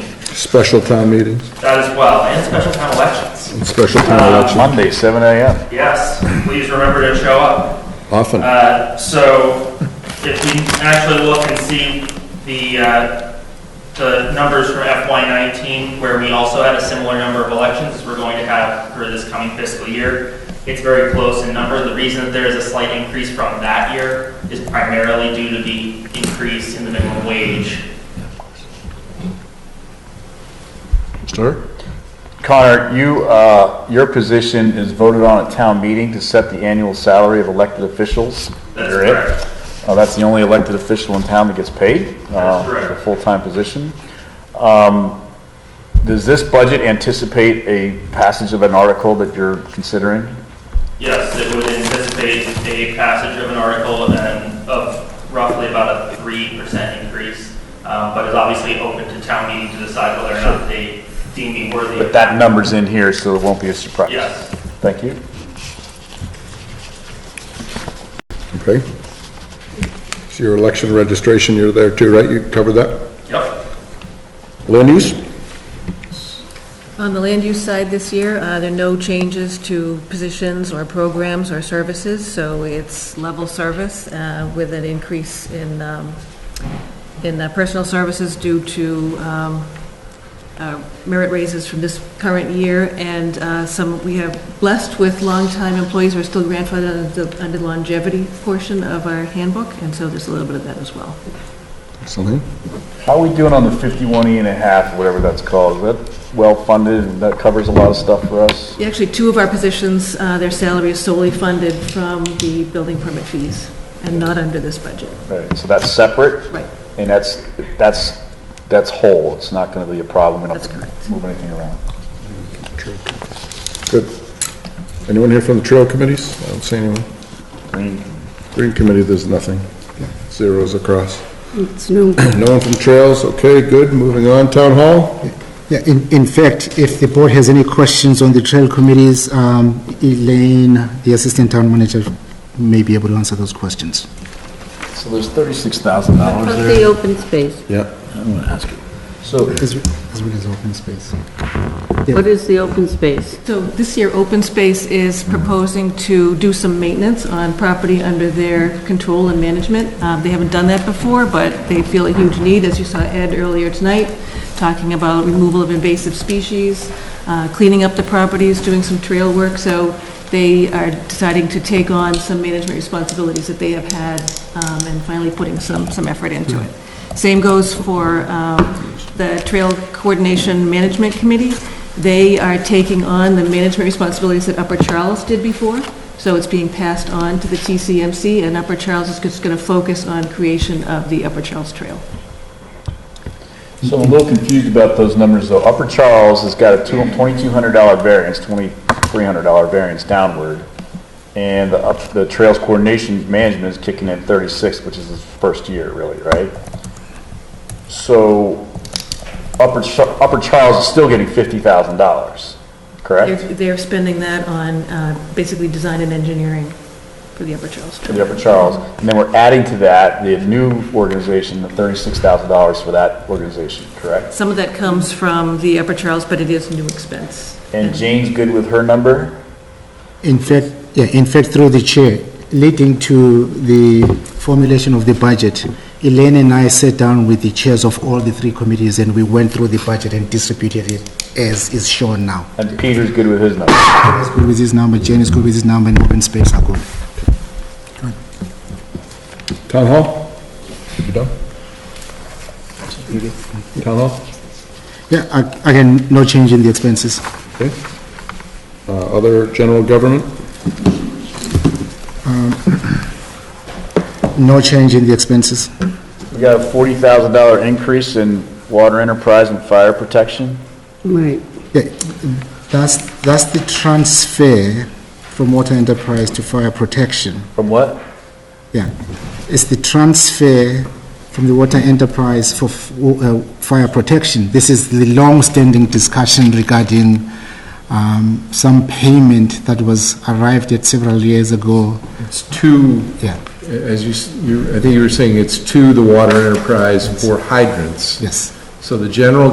special town meetings, That as well, and special town elections. and special town elections, Monday, seven AM. Yes, please remember to show up. often. Uh, So if we actually look and see the, uh, the numbers from FY19, where we also had a similar number of elections as we're going to have for this coming fiscal year, it's very close in number. The reason that there is a slight increase from that year is primarily due to the increase in the minimum wage. Sir? Connor, you, uh, your position is voted on at town meeting to set the annual salary of elected officials. That's You're it. correct. Uh, that's the only elected official in town that gets paid. uh, That's correct. A full-time position. Um, does this budget anticipate a passage of an article that you're considering? Yes, it would anticipate a passage of an article and of roughly about a three percent increase, um, but is obviously open to town meeting to decide whether or not they deem me worthy. But that number's in here, so it won't be a surprise. Yes. Thank you. Okay. It's your election registration, you're there too, right? You covered that? Yep. Land use? On the land use side this year, uh, there are no changes to positions or programs or services, so it's level service uh, with an increase in, um, in uh, personal services due to um, uh, merit raises from this current year, and uh, some, we have blessed with longtime employees who are still grandfathered under the- under the longevity portion of our handbook, and so there's a little bit of that as well. Something? How are we doing on the 51E and a half, whatever that's called? Is that well-funded, and that covers a lot of stuff for us? Actually, two of our positions, uh, their salary is solely funded from the building permit fees and not under this budget. Right, so that's separate? Right. And that's, that's, that's whole, it's not gonna be a problem, we don't That's correct. move anything around. Good. Anyone here from the trail committees? I don't see anyone. Green committee, there's nothing. Zeros across. It's no, No one from trails, okay, good, moving on, town hall? yeah, in, in fact, if the board has any questions on the trail committees, um, Elaine, the assistant town manager, may be able to answer those questions. So there's thirty-six thousand dollars Plus the open space. Yeah. I'm gonna ask you. So, As, as well as open space. What is the open space? So this year, Open Space is proposing to do some maintenance on property under their control and management. Uh, They haven't done that before, but they feel a huge need, as you saw Ed earlier tonight, talking about removal of invasive species, uh, cleaning up the properties, doing some trail work. So they are deciding to take on some management responsibilities that they have had um, and finally putting some, some effort into it. Same goes for um, the Trail Coordination Management Committee. They are taking on the management responsibilities that Upper Charles did before, so it's being passed on to the TCMC, and Upper Charles is just going to focus on creation of the Upper Charles Trail. so I'm a little confused about those numbers, though. Upper Charles has got a two, twenty-two hundred dollar variance, twenty-three hundred dollar variance downward. And the up, the Trails Coordination Management is kicking in thirty-six, which is his first year, really, right? So, Upper, Char- Upper Charles is still getting fifty thousand dollars, They're correct? they're spending that on uh, basically design and engineering for the Upper Charles For the Trail. Upper Charles. And then we're adding to that the new organization, the thirty-six thousand dollars for that organization, correct? Some of that comes from the Upper Charles, but it is new expense. And Jane's good with her number? In fact, yeah, in fact, through the chair, leading to the formulation of the budget, Elaine and I sat down with the chairs of all the three committees and we went through the budget and distributed it as is shown now. And Peter's good with his number. That's good with his number, Jane is good with his number, and open space are good. Town hall? You done? Town hall? Yeah, ag- again, no change in the expenses. Okay. Uh, Other general government? No change in the expenses. We got a forty thousand dollar increase in water enterprise and fire protection. Right. Yeah, that's, that's the transfer from water enterprise to fire protection. From what? Yeah, it's the transfer from the water enterprise for f- uh, fire protection. This is the long-standing discussion regarding um, some payment that was arrived at several years ago. It's to, Yeah, as you s- you, I think you were saying, it's to the water enterprise for hydrants. yes. So the general